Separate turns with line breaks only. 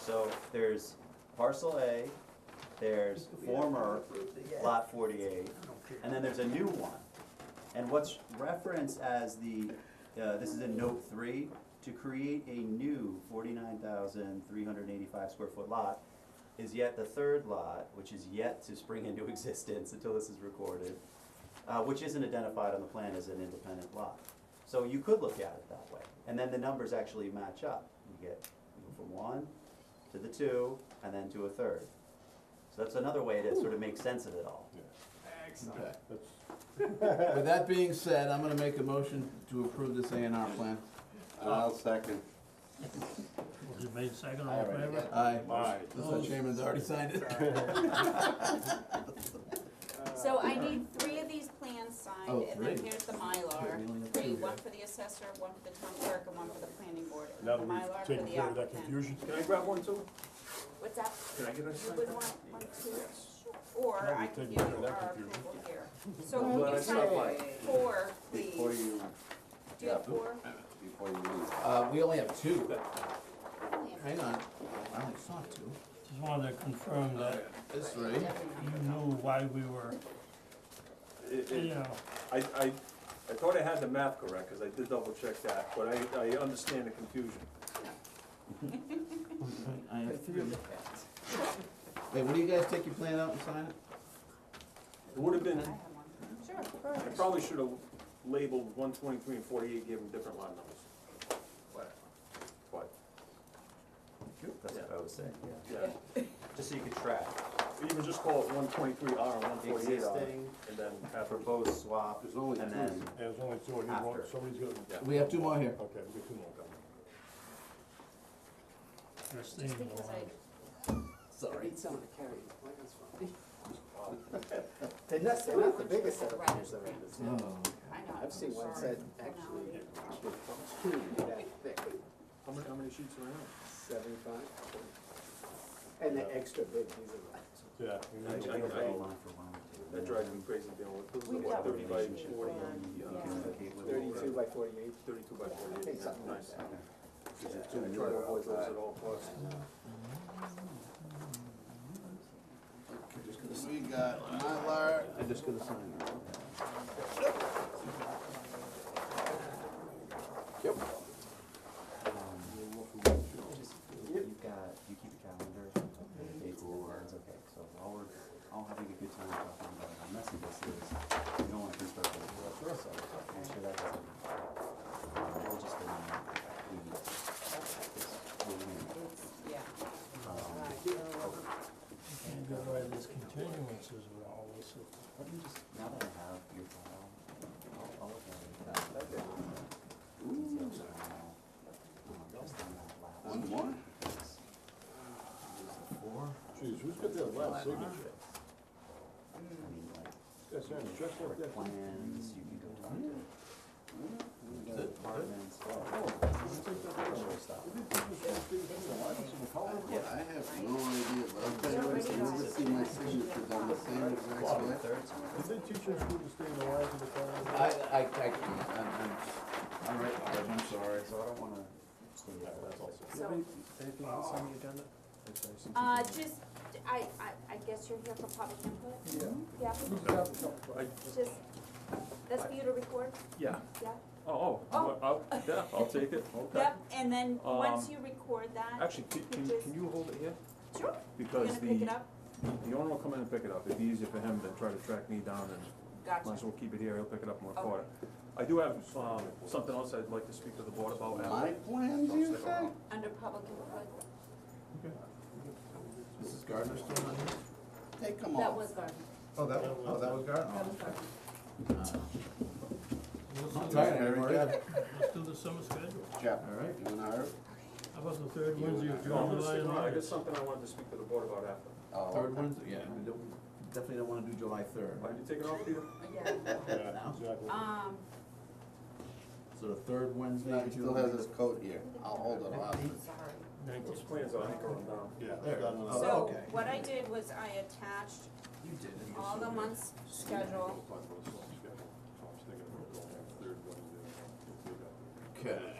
So there's parcel A, there's former lot forty-eight, and then there's a new one. And what's referenced as the, uh, this is in note three, to create a new forty-nine thousand three hundred eighty-five square foot lot is yet the third lot, which is yet to spring into existence until this is recorded, uh, which isn't identified on the plan as an independent lot. So you could look at it that way, and then the numbers actually match up. You get you go from one to the two, and then to a third. So that's another way to sort of make sense of it all.
Excellent.
With that being said, I'm gonna make a motion to approve this A and R plan.
I'll second.
Was it made second,
I
all in
already
favor?
Aye.
Aye.
The chairman's already signed it.
So I need three of these plans signed,
Oh,
and then
three.
here's the Mylar,
Okay, we only have
three,
two
one
here.
for the assessor, one for the town clerk, and one for the planning board. and
Now
the
that
Mylar
we've
for
taken
the
care of that
applicant.
confusion,
Can I grab one too?
What's that?
Can I get a
You
second?
would want one, two, or I
taken
could give
care of
you
that
our
confusion.
approval here. So can you
that's
sign
not mine.
four,
Before
please?
you,
Do you have four?
before you leave.
Uh, we only have two. Hang on, I only saw two.
Just wanted to
Oh,
confirm that
This three.
you knew why we were,
It-
you
it-
know,
I, I, I thought I had the math correct, cause I did double check that, but I, I understand the confusion.
I have three. Wait, what do you guys take your plan out and sign it?
It would've been,
I have one. Sure, of
I
course.
probably should've labeled one twenty-three and forty-eight, gave them different line numbers. But- But,
That's what I was saying, yeah.
yeah,
Just so you could track
even just call it one twenty-three R and one forty-eight R,
existing,
and then have them both.
proposed swap,
There's only
and
two.
then
There's only two, you
After.
want, somebody's gonna, okay,
We have two more here.
we'll get two more coming.
this thing
Just because I,
Sorry.
Need someone to carry these plans for me. They're not, they're not the biggest set of plans there is.
Oh,
I know.
I've seen one
Sorry.
set actually, two that thick,
How many, how many sheets are in it?
seventy-five. And the extra big, these are like,
Yeah. we need to
I- I-
go back.
line for line.
That drives me crazy dealing with,
We've
what,
got
thirty by
relationship.
forty, uh,
You
Yeah.
can communicate with
thirty-two by forty-eight,
thirty-two by
I
forty-eight,
think something like
nice.
that.
There's two
I
new
try to avoid
ones
those
outside.
at all costs.
We got Mylar.
I'm just gonna sign it. Yep.
Um, Just- You've got, you keep a calendar, and dates and deadlines, okay, so while we're all having a good time talking about how messy this is, you don't want to construct it. So, make sure that doesn't, we'll just, um, we, we'll win.
It's, yeah.
Um,
can't go by these continuances with all this.
Let me just, now that I have your file, I'll, I'll look at it.
Okay.
Details are now, um, just on that last.
One more?
because-
Geez, who's got that last signature?
I mean, like,
That's him, just like that.
plans, you can go talk to. Departments. Oh,
Oh,
Sure stuff.
Yeah, I have no idea, but I'll tell you, what, I never see my signature done the same exact
Bottom
way.
third time.
Did they teach us who to stay in the lines of the car?
I, I, I, can't. I'm, I'm, all right, Barb, I'm sorry.
So I don't wanna stay there.
So-
Anything else on the agenda?
Uh, just, I, I, I guess you're here for public input? Yeah. Yeah? Uh, Just, that's for you to record,
Yeah,
yeah?
oh,
Oh.
oh, I'll, yeah, I'll take it, okay.
Yep, and then, once
Um,
you record that,
Actually, can, can, can you hold it here?
sure, you're
Because
gonna
the,
pick it up?
the owner will come in and pick it up, it'd be easier for him than try to track me down and might
Gotcha.
as well keep it here, he'll pick it up and
Okay.
record it. I do have, um, something else I'd like to speak to the board about
My
after.
plans,
Don't
you
stick
say?
around.
Under public input,
Mrs. Gardner still on here?
Take them
that
all.
was Gardner,
Oh, that, oh, that was Gardner. Uh,
that was Gardner.
I'm tired,
Very
everybody.
good.
Let's do the summer schedule.
Jeff,
All right.
you and I are,
How about the third
You
Wednesday
and
of
I.
No, I'm
June,
gonna
July,
stick
and
around, I got
August?
something I wanted to speak to the board about after.
oh.
Third Wednesday, yeah, we don't, definitely don't wanna do July third.
Why, you take it off, Peter?
Yeah,
Yeah, exactly.
um,
So the third Wednesday
He
of
still
June.
has his coat here. I'll hold it off.
sorry.
Those plans are anchored down.
Yeah.
There.
got another-
Oh,
So,
okay.
what I did was I attached
You did it. You're
all
so
the
good.
months' schedule
So I'm sticking with it. Third Wednesday.
Okay.